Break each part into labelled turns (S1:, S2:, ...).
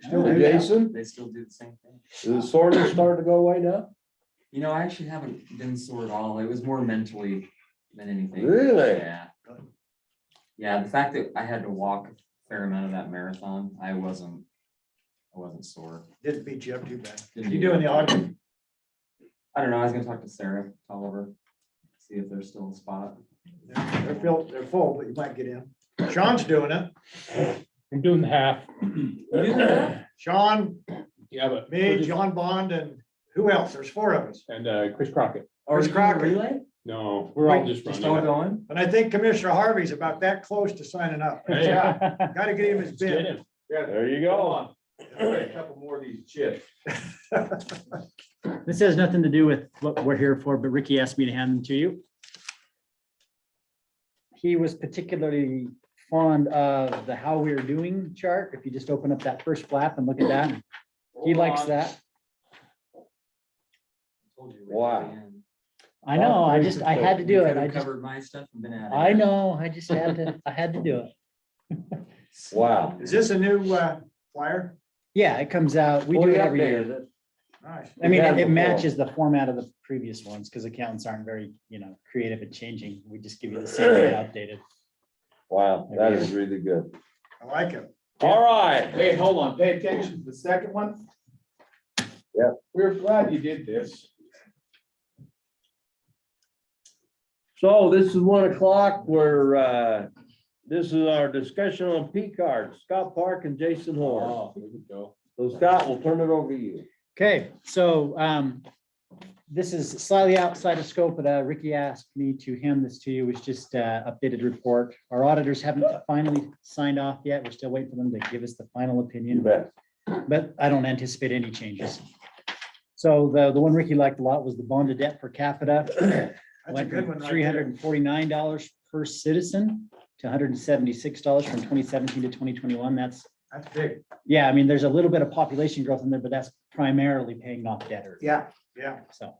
S1: still do that?
S2: Jason,
S1: They still do the same thing.
S2: is the soreness starting to go away now?
S1: You know, I actually haven't been sore at all. It was more mentally than anything.
S2: Really?
S1: Yeah. Yeah, the fact that I had to walk a fair amount of that marathon, I wasn't, I wasn't sore.
S3: Didn't beat you up too bad.
S1: Didn't
S3: You
S1: do
S3: doing the
S1: that.
S3: auction?
S1: I don't know. I was gonna talk to Sarah Tolliver, see if there's still a spot.
S3: They're they're filled, they're full, but you might get in. Sean's doing it.
S4: I'm doing the half.
S3: Sean,
S4: Yeah, but. we're
S3: me,
S4: just-
S3: John Bond, and who else? There's four of us.
S4: And uh, Chris Crockett.
S1: Or
S3: Chris
S1: is it
S3: Crocker.
S1: Relay?
S4: No, we're all
S3: Wait,
S4: just running.
S1: Still going?
S3: And I think Commissioner Harvey's about that close to signing up. Yeah,
S4: Hey.
S3: Gotta get him his
S4: Get
S3: bid.
S4: him.
S2: There you go.
S5: Couple more of these chips.
S6: This has nothing to do with what we're here for, but Ricky asked me to hand them to you. He was particularly fond of the how we're doing chart. If you just open up that first flap and look at that, he likes that.
S1: Told you.
S2: Wow.
S6: I know, I just, I had to do it. I just,
S1: Covered my stuff and been at it.
S6: I know, I just had to, I had to do it.
S2: Wow.
S3: Is this a new uh, flyer?
S6: Yeah, it comes out, we do it every year.
S3: Nice.
S6: I mean,
S2: had
S6: it
S2: it
S6: it
S2: before.
S6: matches the format of the previous ones because accountants aren't very, you know, creative at changing. We just give you the same thing outdated.
S2: Wow, that is really good.
S3: I like it.
S2: All right.
S5: Hey, hold on, pay attention to the second one.
S2: Yep.
S5: We're glad you did this.
S2: So this is one o'clock. We're, uh, this is our discussion on P cards, Scott Park and Jason Horn.
S4: Oh, there we go.
S2: So Scott, we'll turn it over to you.
S6: Okay, so um, this is slightly outside of scope, but uh, Ricky asked me to hand this to you, which just uh, updated report. Our auditors haven't finally signed off yet. We're still waiting for them to give us the final
S2: You
S6: opinion,
S2: bet.
S6: but I don't anticipate any changes. So the, the one Ricky liked a lot was the bond to debt per capita.
S3: That's a good one. right there.
S6: Three hundred and forty-nine dollars per citizen to hundred and seventy-six dollars from twenty seventeen to twenty twenty-one. That's,
S3: That's big.
S6: yeah, I mean, there's a little bit of population growth in there, but that's primarily paying off debtors.
S3: Yeah, yeah.
S6: So,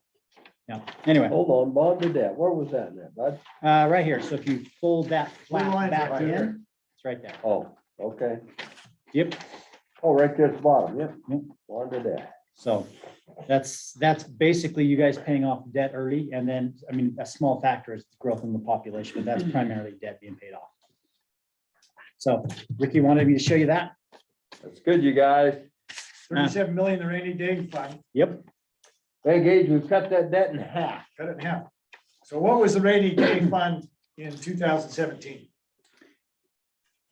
S6: yeah, anyway,
S2: Hold on, Bob did that. Where was that now, bud?
S6: uh, right here. So if you fold that
S3: Blue
S6: flat
S3: lines are
S6: back
S3: right there.
S6: in, it's right there.
S2: Oh, okay.
S6: Yep.
S2: Oh, right there at the bottom. Yep.
S6: Yep.
S2: Bob did that.
S6: So that's, that's basically you guys paying off debt early. And then, I mean, a small factor is growth in the population, but that's primarily debt being paid off. So Ricky wanted me to show you that.
S2: That's good, you guys.
S3: Thirty-seven million, the rainy day fund,
S6: Yep,
S2: Hey, Gage, we've cut that debt in half.
S3: cut it in half. So what was the rainy day fund in two thousand seventeen?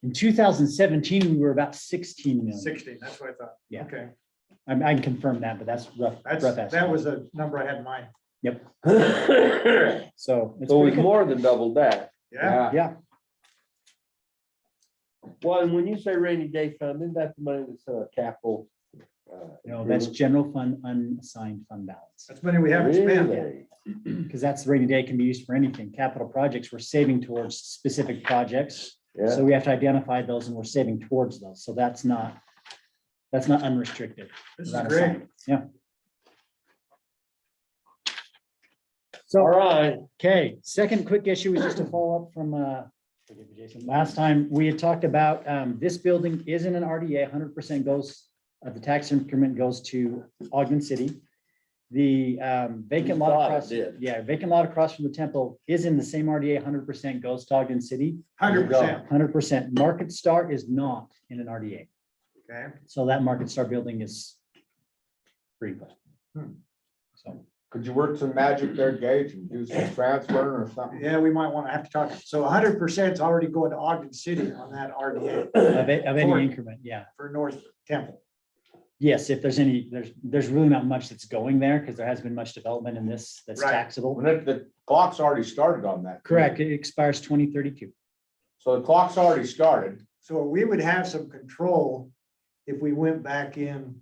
S6: in two thousand seventeen, we were about sixteen million.
S3: Sixteen, that's what I thought.
S6: Yeah.
S3: Okay,
S6: I I can confirm that, but that's rough.
S3: that's,
S6: rough
S3: that
S6: estimate.
S3: was a number I had in mind.
S2: So
S6: So. it's
S2: it's
S6: pretty good.
S2: more than double that.
S3: Yeah,
S6: Yeah,
S2: Well, and when you say rainy day fund, isn't that the money that's in our capital? uh,
S6: no, that's general fund unassigned fund balance.
S3: that's money we haven't spent.
S2: Really?
S6: Because that's rainy day can be used for anything. Capital projects, we're saving towards specific projects.
S2: Yeah,
S6: So we have to identify those and we're saving towards those. So that's not, that's not unrestricted.
S3: This is
S6: not
S3: great.
S6: assigned. Yeah.
S2: all
S6: So.
S2: right.
S6: Okay, second quick issue is just a follow-up from, uh, forgive me, Jason, last time, we had talked about, um, this building isn't an RDA, hundred percent goes, uh, the tax increment goes to Ogden City. The, um, vacant
S2: We thought
S6: lot
S2: it
S6: across,
S2: did.
S6: yeah, vacant lot across from the temple is in the same RDA, hundred percent goes to Ogden City.
S3: Hundred percent,
S6: Hundred percent, Market Star is not in an RDA,
S3: okay.
S6: so that Market Star building is free.
S3: Hmm.
S6: So,
S5: Could you work some magic there, Gage, and do some transferring or something?
S3: Yeah, we might want to have to talk. So hundred percent is already going to Ogden City on that RDA
S6: of a- of
S3: Ford.
S6: any increment, yeah.
S3: for North Temple.
S6: Yes, if there's any, there's, there's really not much that's going there because there hasn't been much development in this that's
S3: Right.
S6: taxable.
S5: When it- the clock's already started on that.
S6: Correct, it expires twenty thirty-two.
S5: So the clock's already started.
S3: So we would have some control if we went back in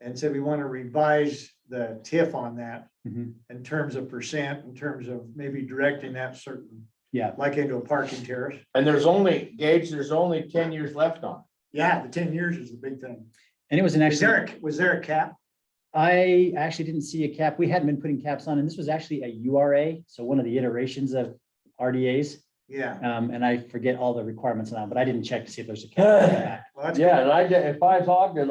S3: and said we want to revise the TIF on that in terms of percent, in terms of maybe directing that certain,
S6: Yeah,
S3: like into a parking terrace.
S5: And there's only, Gage, there's only ten years left on.
S3: Yeah, the ten years is the big thing.
S6: and it was an
S3: Is there,
S6: actually,
S3: a- was there a cap?
S6: I actually didn't see a cap. We hadn't been putting caps on, and this was actually a URA, so one of the iterations of RDAs.
S3: Yeah,
S6: Um, and I forget all the requirements now, but I didn't check to see if there's a cap.
S3: well, that's.
S2: Yeah, and I, if I was Ogden,